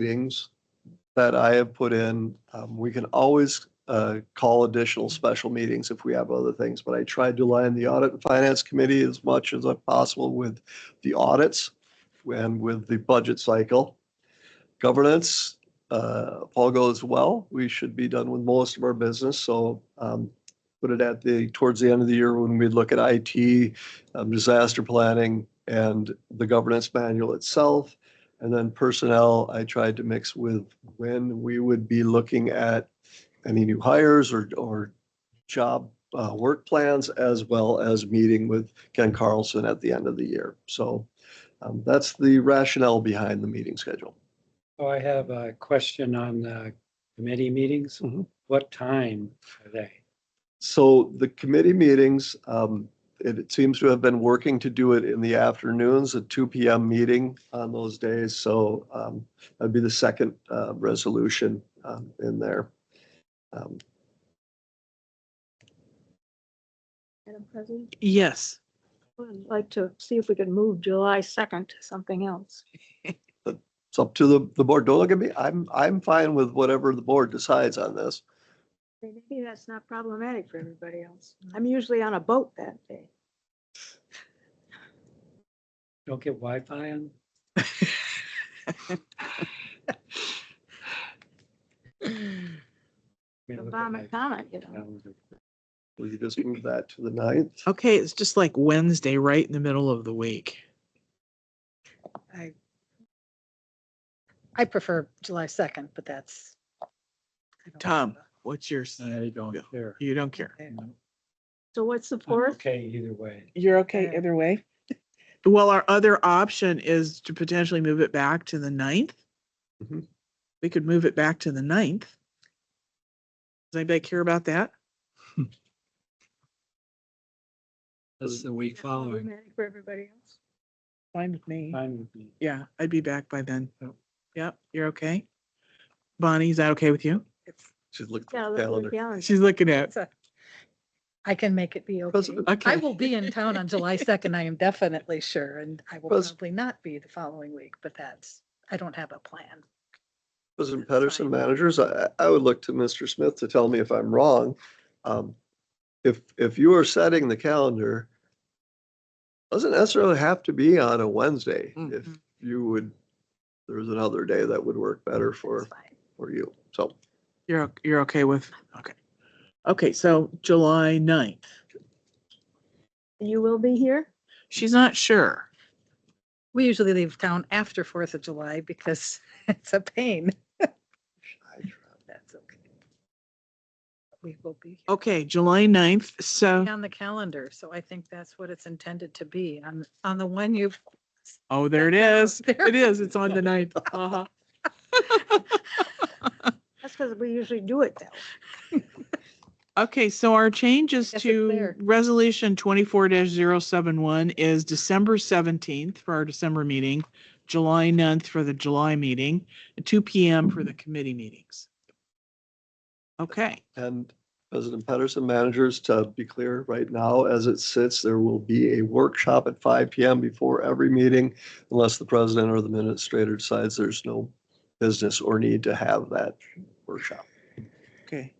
meetings that I have put in. Um, We can always uh, call additional special meetings if we have other things, but I tried to align the Audit and Finance Committee as much as possible with the audits and with the budget cycle. Governance, uh, if all goes well, we should be done with most of our business, so um, put it at the, towards the end of the year when we look at IT, um, disaster planning, and the governance manual itself. And then personnel, I tried to mix with when we would be looking at any new hires or, or job uh, work plans, as well as meeting with Ken Carlson at the end of the year. So um, that's the rationale behind the meeting schedule. Oh, I have a question on the committee meetings. Mm-hmm. Mhm. What time are they? So the committee meetings, um, it it seems to have been working to do it in the afternoons, a two PM meeting on those days. So, um, that'd be the second, uh, resolution, um, in there. Um, Madam President, Yes, I'd like to see if we could move July 2nd to something else. It's up to the, the board. Don't look at me. I'm, I'm fine with whatever the board decides on this. Maybe that's not problematic for everybody else. I'm usually on a boat that day. Don't get Wi-Fi on? Let me look at Obama my comment, you know. calendar. Will you just move that to the ninth? okay, it's just like Wednesday, right in the middle of the week. I, I prefer July 2nd, but that's. I don't Tom, have what's your, s- I don't care. you don't care. a- I- So what's the I'm 4th? Okay, either way. You're okay Yeah. either way? Well, our other option is to potentially move it back to the ninth. Mm-hmm. Mhm. We could move it back to the ninth. Does anybody care about that? That's the week following. Problematic For everybody else. Fine with me. Fine with me. Yeah, I'd be back by then. Yep. Yep, you're okay? Bonnie, is that okay with you? it's- Should look at Yeah, the look at calendar. the calendar. She's looking at, it's a- I can make it be okay. President- okay. I will be in town on July 2nd, I am definitely sure, and I will Pres- probably not be the following week, but that's, I don't have a plan. President That's Pedersen, fine. managers, I, I would look to Mr. Smith to tell me if I'm wrong. Um, If, if you are setting the calendar, doesn't necessarily have to be on a Wednesday. Mm-hmm. If Mhm. you would, there's another day that would work better for, It's fine. for you. So You're, o- you're okay with, okay. Okay, so July ninth. You will be here? She's not sure. We usually leave town after 4th of July because it's a pain. That's okay. We will be. here. Okay, July ninth, so, be on the calendar, so I think that's what it's intended to be, on, on the one you've. oh, there it is. There. It is, it's on the ninth. Uh-huh. That's because we usually do it that way. Okay, so our changes Yes, it's to there. resolution twenty-four 71 is December seventeenth for our December meeting, July 9th for the July meeting, and two P M for the committee meetings. Okay, And President Pedersen, managers, to be clear, right now, as it sits, there will be a workshop at five PM before every meeting unless the president or the administrator decides there's no business or need to have that workshop. okay.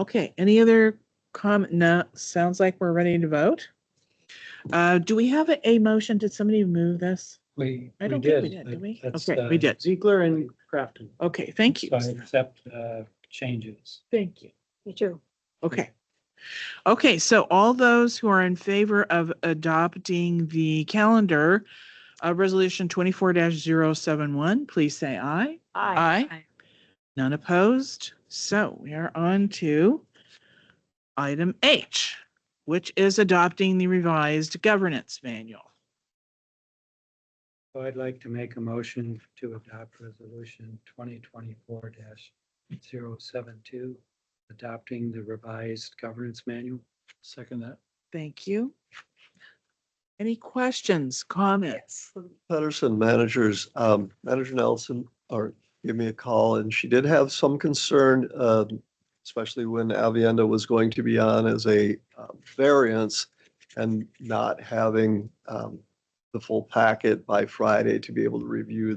Okay, any other comment? No, sounds like we're ready to vote. Uh, do we have a, a motion? Did somebody move this? We, I we don't think we did. did, did we? That's, Okay, we uh, did. Ziegler and Crafton. Okay, thank you. So I accept uh, changes. Thank you. Me too. Okay. Okay, so all those who are in favor of adopting the calendar, uh, resolution twenty-four 71 please say aye. Aye. Aye. None opposed? So we are on to item H, which is adopting the revised governance manual. So I'd like to make a motion to adopt resolution twenty twenty-four 72 adopting the revised governance manual. Second that. Thank you. Any questions, comments? Yes. Pedersen managers, um, Manager Nelson, or give me a call, and she did have some concern, um, especially when Avienda was going to be on as a uh, variance and not having, um, the full packet by Friday to be able to review